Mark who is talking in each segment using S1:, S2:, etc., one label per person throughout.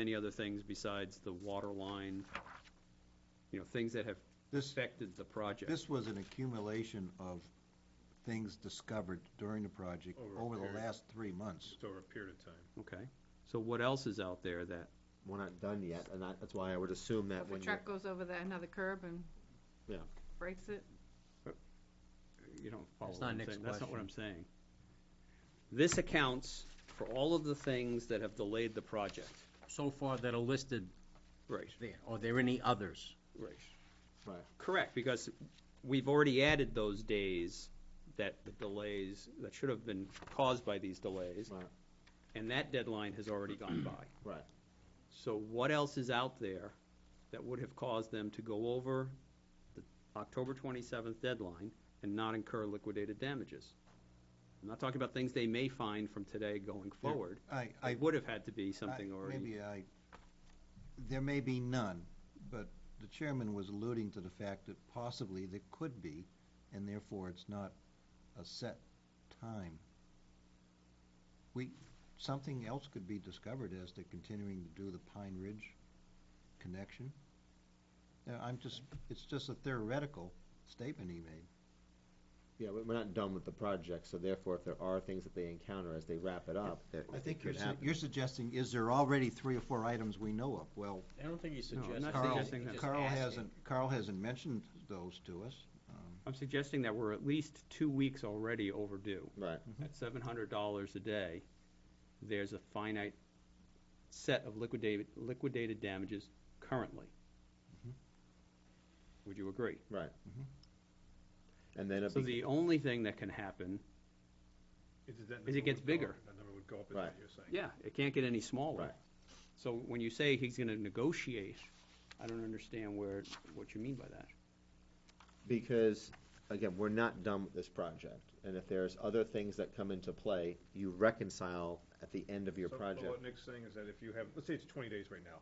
S1: any other things besides the water line, you know, things that have
S2: This,
S1: affected the project.
S2: this was an accumulation of things discovered during the project
S3: Over a
S2: over the
S3: period.
S2: last three months.
S3: Just over a period of time.
S1: Okay, so what else is out there that,
S4: We're not done yet, and I- that's why I would assume that
S5: If a
S4: when you,
S5: truck goes over that, another curb and
S4: Yeah.
S5: breaks it,
S1: you don't follow what
S6: That's not
S1: I'm
S6: Nick's
S1: saying? That's not what I'm
S6: question.
S1: saying. This accounts for all of the things that have delayed the project.
S6: so far that are listed
S1: Right.
S6: there? Are there any others?
S1: Right.
S4: Right.
S1: Correct, because we've already added those days that the delays, that should have been caused by these delays.
S4: Right.
S1: And that deadline has already gone by.
S4: Right.
S1: So what else is out there that would have caused them to go over the October twenty-seventh deadline and not incur liquidated damages? I'm not talking about things they may find from today going forward.
S2: I, I.
S1: It would have had to be
S2: I-
S1: something already.
S2: Maybe I, there may be none, but the chairman was alluding to the fact that possibly there could be, and therefore it's not a set time. We, something else could be discovered as they're continuing to do the Pine Ridge connection. Now, I'm just, it's just a theoretical statement he made.
S4: yeah, we- we're not done with the project, so therefore, if there are things that they encounter as they wrap it up, that
S2: I think
S4: it
S2: you're,
S4: could
S2: su-
S4: happen.
S2: you're suggesting, is there already three or four items we know of? Well,
S3: I don't think he's
S1: No, I'm
S3: suggesting.
S1: not
S2: Carl,
S1: suggesting that.
S2: Carl hasn't, Carl hasn't mentioned those to us. Um,
S1: I'm suggesting that we're at least two weeks already overdue.
S4: Right,
S1: At seven hundred dollars a day, there's a finite set of liquidated, liquidated damages currently. Mm-hmm. Would you agree?
S2: Mm-hmm.
S4: and then it
S1: So
S4: be,
S1: the only thing that can happen, As it gets bigger.
S3: That number would go up, is
S4: Right.
S3: what you're saying.
S1: yeah, it can't get any smaller.
S4: Right.
S1: So when you say he's gonna negotiate, I don't understand where, what you mean by that.
S4: because, again, we're not done with this project, and if there's other things that come into play, you reconcile at the end of your
S3: So, but
S4: project.
S3: What Nick's saying is that if you have, let's say it's twenty days right now,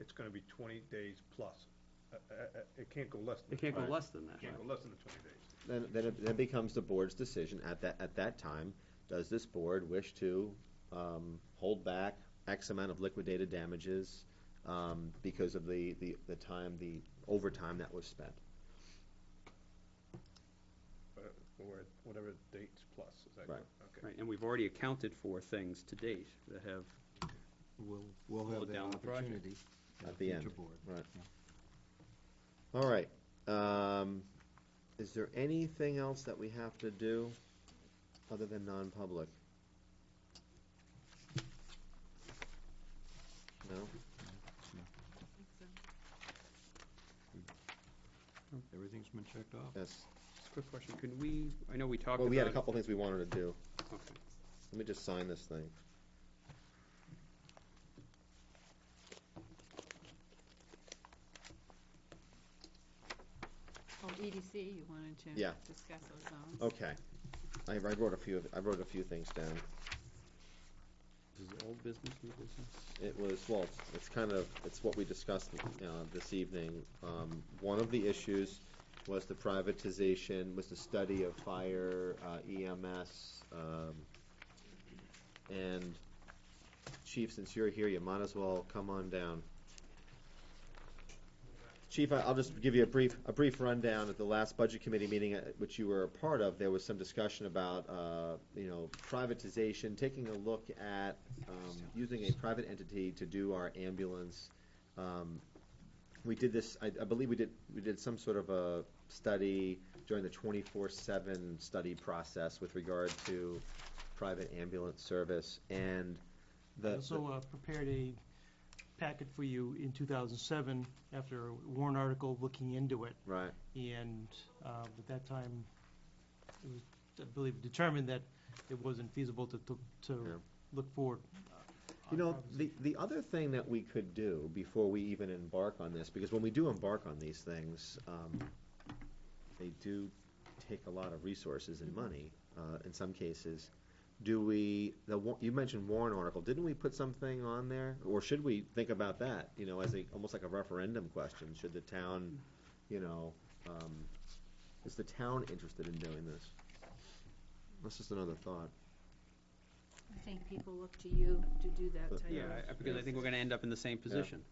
S3: it's gonna be twenty days plus. Uh, uh, uh, It can't go less than.
S1: It can't go
S4: Right.
S1: less than that,
S3: It can't
S1: right?
S3: go less than the twenty days.
S4: Then, then it, then becomes the board's decision at that, at that time, does this board wish to, um, hold back X amount of liquidated damages, um, because of the, the, the time, the overtime that was spent?
S3: but- Or whatever dates plus, is that
S4: Right.
S3: correct? Okay.
S1: Right, and we've already accounted for things to date that have,
S2: We'll, we'll
S1: Slow
S2: have that
S1: down the project.
S2: opportunity.
S4: At
S2: at a
S4: the end.
S2: future board.
S4: All right, um, is there anything else that we have to do other than non-public? No?
S2: Everything's been checked off.
S4: That's,
S1: quick question, can we, I know we talked about.
S4: well, we had a couple things we wanted to do.
S1: Okay.
S4: Let me just sign this thing.
S5: oh, EDC, you wanted to
S4: Yeah.
S5: discuss those zones.
S4: Okay. I, I wrote a few, I wrote a few things down.
S1: This is old business, new business?
S4: It was, well, it's- it's kind of, it's what we discussed, uh, this evening. Um, one of the issues was the privatization, was the study of fire, uh, EMS, um, and Chief, since you're here, you might as well come on down. Chief, I- I'll just give you a brief, a brief rundown. At the last Budget Committee meeting, uh, which you were a part of, there was some discussion about, uh, you know, privatization, taking a look at um, using a private entity to do our ambulance. Um, We did this, I I believe we did, we did some sort of a study during the twenty-four-seven study process with regard to private ambulance service, and the.
S7: I also uh, prepared a packet for you in 2007 after a Warren article looking into it.
S4: Right,
S7: And um, at that time, it was, I believe, determined that it wasn't feasible to, to-
S4: Yeah.
S7: to look forward.
S4: you know,
S7: on-
S4: the, the other thing that we could do before we even embark on this, because when we do embark on these things, um, they do take a lot of resources and money, uh, in some cases. Do we, the, wa- you mentioned Warren article, didn't we put something on there? Or should we think about that, you know, as a, almost like a referendum question? Should the town, you know, um, is the town interested in doing this? That's just another thought.
S5: I think people look to you to do that type of.
S1: Yeah, I- because I think we're gonna end up in the same position.